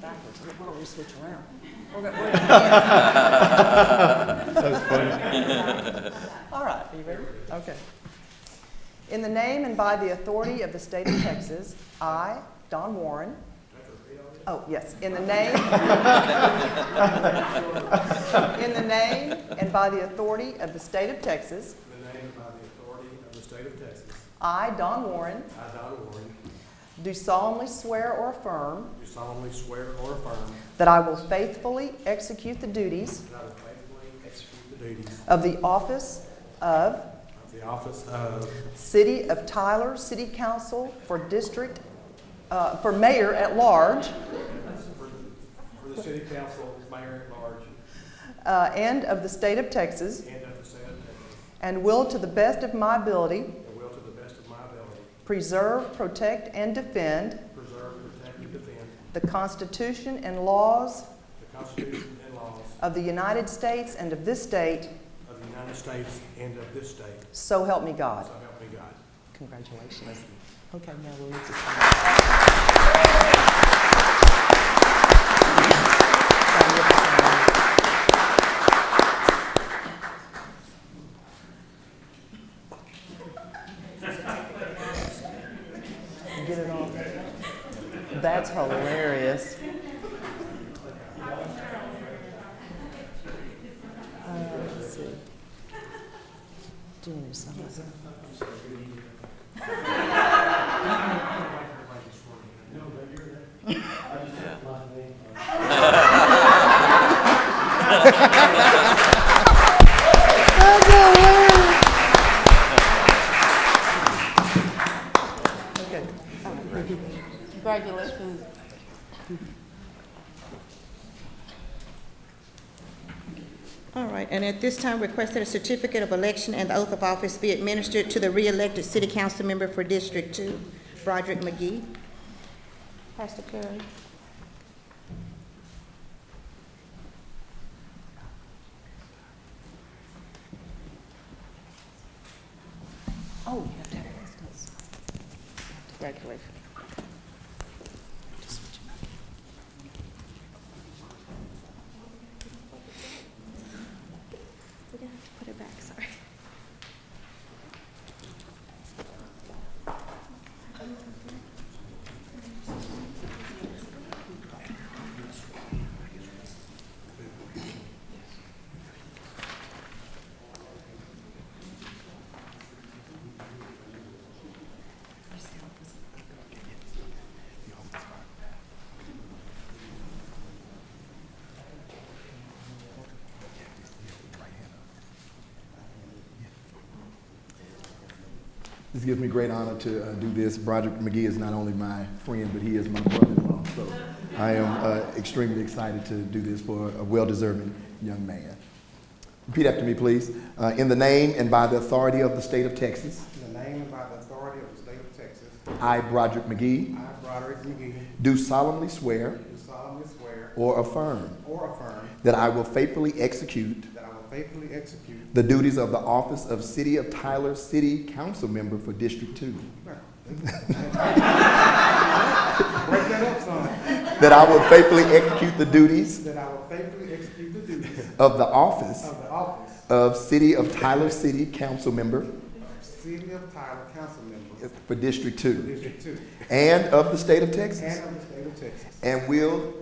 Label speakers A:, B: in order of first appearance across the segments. A: backwards. We- Why don't we switch around? We're go- we're- All right, are you ready? Okay. In the name and by the authority of the state of Texas, I, Don Warren. Oh, yes, in the name. In the name and by the authority of the state of Texas,
B: In the name and by the authority of the state of Texas,
A: I, Don Warren,
B: I, Don Warren,
A: do solemnly swear or affirm
B: do solemnly swear or affirm
A: that I will faithfully execute the duties
B: that I will faithfully execute the duties
A: of the office of
B: of the office of
A: City of Tyler City Council for District, uh, for Mayor at Large,
B: for for the city council, mayor at large,
A: uh, and of the state of Texas,
B: and of the state of Texas,
A: and will to the best of my ability
B: and will to the best of my ability
A: preserve, protect, and defend
B: preserve, protect, and defend
A: the Constitution and laws
B: the Constitution and laws
A: of the United States and of this state,
B: of the United States and of this state,
A: so help me
B: so
A: God.
B: help me God. Thank
A: Congratulations.
B: you.
A: Okay, now we'll let you sign. Get it all. That's hilarious. Uh, let's see. Do you need to sign this? Okay.
C: Congratulations.
D: All right, and at this time, request that a certificate of election and the oath of office be administered to the re-elected city council member for District Two, Broderick McGee. Pastor Curry.
A: Oh, you have to have those notes.
D: Congratulations.
A: Just switch them up.
D: We're gonna have to put it back, sorry.
E: This gives me great honor to uh, do this. Broderick McGee is not only my friend, but he is my brother-in-law. So I am uh, extremely excited to do this for a well-deserving young man. Repeat after me, please. Uh, in the name and by the authority of the state of Texas,
F: In the name and by the authority of the state of Texas,
E: I, Broderick McGee,
F: I, Broderick McGee,
E: do solemnly swear
F: do solemnly swear
E: or affirm
F: or affirm
E: that I will faithfully execute
F: that I will faithfully execute
E: the duties of the office of City of Tyler City Council Member for District 2.
F: break that up son,
E: That I will faithfully execute the duties
F: that I will faithfully execute the duties
E: of the office
F: of the office
E: of City of Tyler City Council Member
F: of City of Tyler Council Member,
E: for District 2
F: District Two,
E: and of the State of Texas,
F: and of the state of Texas,
E: and will,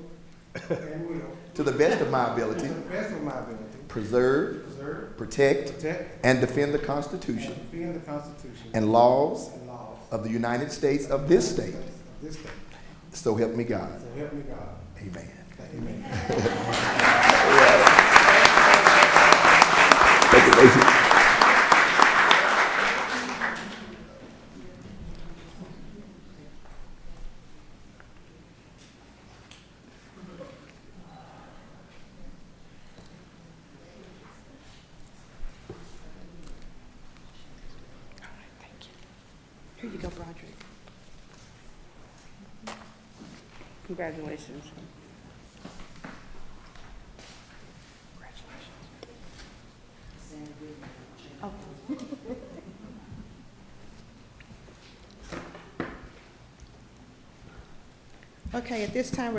F: and will,
E: to the best of my
F: to
E: ability,
F: the best of my ability,
E: preserve,
F: preserve,
E: protect,
F: protect,
E: and defend the
F: and
E: Constitution
F: defend the Constitution
E: and laws
F: and laws
E: of the United States of this state.
F: of this state.
E: So help me God.
F: So help me God.
E: Amen.
F: Amen.
E: Thank you, ladies.
D: All right, thank you. Here you go, Broderick.
C: Congratulations.
D: Okay, at this time,